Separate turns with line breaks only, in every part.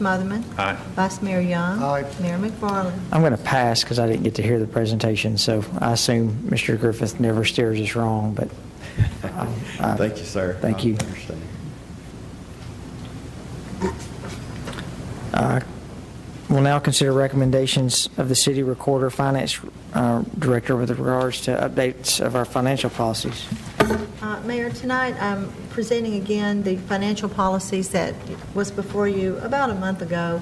Smotherman.
Aye.
Vice Mayor Young.
Aye.
Mayor McFarland.
I'm going to pass because I didn't get to hear the presentation, so I assume Mr. Griffith never steers us wrong, but. um, I-
Thank you, sir.
Thank you.
I understand.
Uh, We'll now consider recommendations of the city recorder, finance uh, director with regards to updates of our financial policies.
Uh, Mayor, tonight I'm presenting again the financial policies that was before you about a month ago.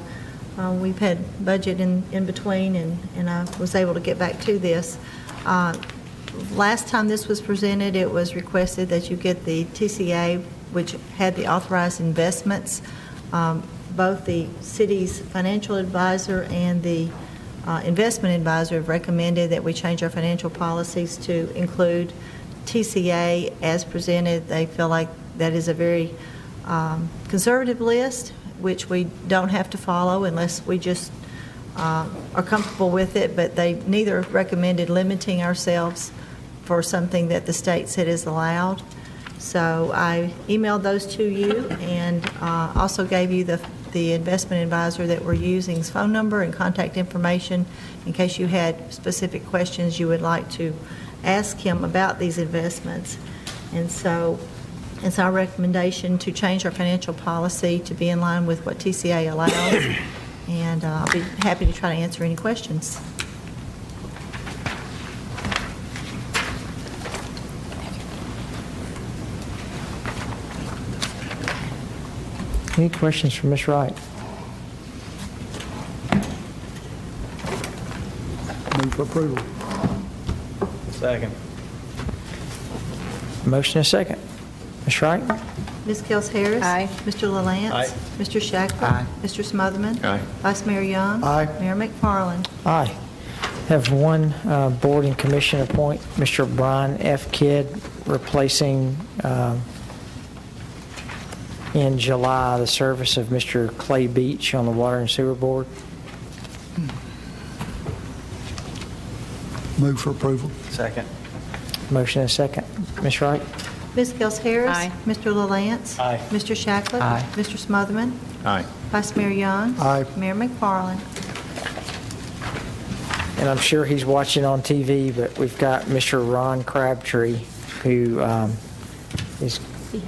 Uh, We've had budget in, in between, and, and I was able to get back to this. Uh, Last time this was presented, it was requested that you get the TCA, which had the authorized investments. Um, Both the city's financial advisor and the uh, investment advisor have recommended that we change our financial policies to include TCA as presented. They feel like that is a very um, conservative list, which we don't have to follow unless we just uh, are comfortable with it, but they neither recommended limiting ourselves for something that the state said is allowed. So I emailed those to you and uh, also gave you the, the investment advisor that we're using's phone number and contact information in case you had specific questions you would like to ask him about these investments. And so it's our recommendation to change our financial policy to be in line with what TCA allows, and uh, I'll be happy to try to answer any questions.
Any questions for Ms. Wright?
Move for approval.
Second.
Motion and second. Ms. Wright?
Ms. Kels Harris.
Aye.
Mr. LaLance.
Aye.
Mr. Shacklet.
Aye.
Mr. Smotherman.
Aye.
Vice Mayor Young.
Aye.
Mayor McFarland.
Aye. Have one uh, board and commission appoint Mr. Brian F. Kidd, replacing um, in July the service of Mr. Clay Beach on the Water and Sewer Board.
Move for approval.
Second.
Motion and second. Ms. Wright?
Ms. Kels Harris.
Aye.
Mr. LaLance.
Aye.
Mr. Shacklet.
Aye.
Mr. Smotherman.
Aye.
Vice Mayor Young.
Aye.
Mayor McFarland.
And I'm sure he's watching on TV, but we've got Mr. Ron Crabtree, who um, is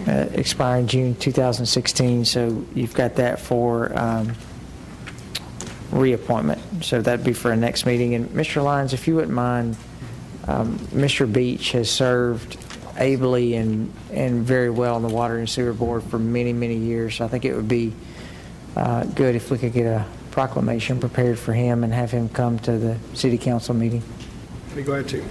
uh, expiring June 2016, so you've got that for um, reappointment. So that'd be for our next meeting. And Mr. Lyons, if you wouldn't mind, um, Mr. Beach has served ably and, and very well on the Water and Sewer Board for many, many years. I think it would be uh, good if we could get a proclamation prepared for him and have him come to the city council meeting.
Be glad to.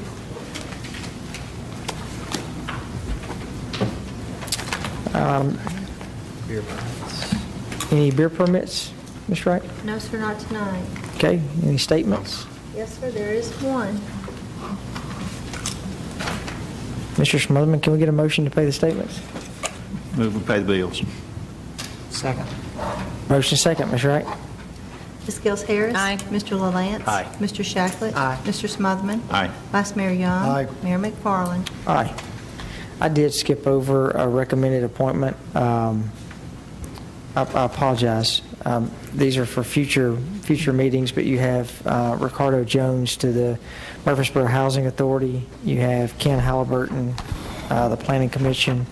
Any beer permits, Ms. Wright?
No, sir, not tonight.
Okay, any statements?
Yes, sir, there is one.
Mr. Smotherman, can we get a motion to pay the statements?
Move and pay the bills.
Second. Motion second, Ms. Wright.
Ms. Gels Harris.
Aye.
Mr. LaLance.
Aye.
Mr. Shacklet.
Aye.
Mr. Smotherman.
Aye.
Vice Mayor Young.
Aye.
Mayor McFarland.
Aye. I did skip over a recommended appointment. Um, I I apologize. Um, These are for future, future meetings, but you have uh, Ricardo Jones to the Murfreesboro Housing Authority. You have Ken Halliburton, uh, the Planning Commission,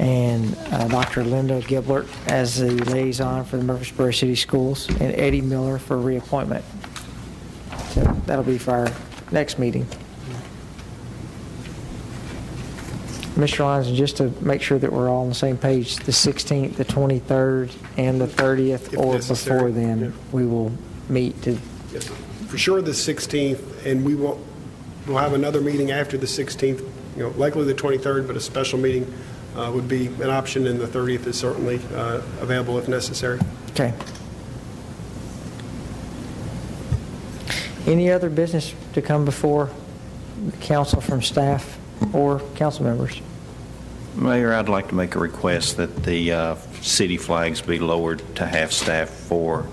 and uh, Dr. Linda Giblert as the liaison for the Murfreesboro City Schools, and Eddie Miller for reappointment. So that'll be for our next meeting. Mr. Lyons, and just to make sure that we're all on the same page, the 16th, the 23rd, and the 30th,
If
or
necessary,
before
yeah.
then, we will meet to,
Yes, sir. for sure the 16th, and we will, we'll have another meeting after the 16th, you know, likely the 23rd, but a special meeting uh, would be an option, and the 30th is certainly uh, available if necessary.
okay. Any other business to come before the council from staff or council members?
Mayor, I'd like to make a request that the uh, city flags be lowered to half-staff for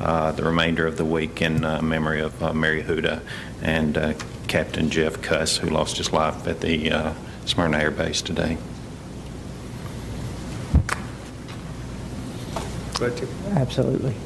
uh, the remainder of the week in uh, memory of uh, Mary Huda and uh, Captain Jeff Cuss, who lost his life at the uh, Smyrna Air Base today.
Glad to.
Absolutely.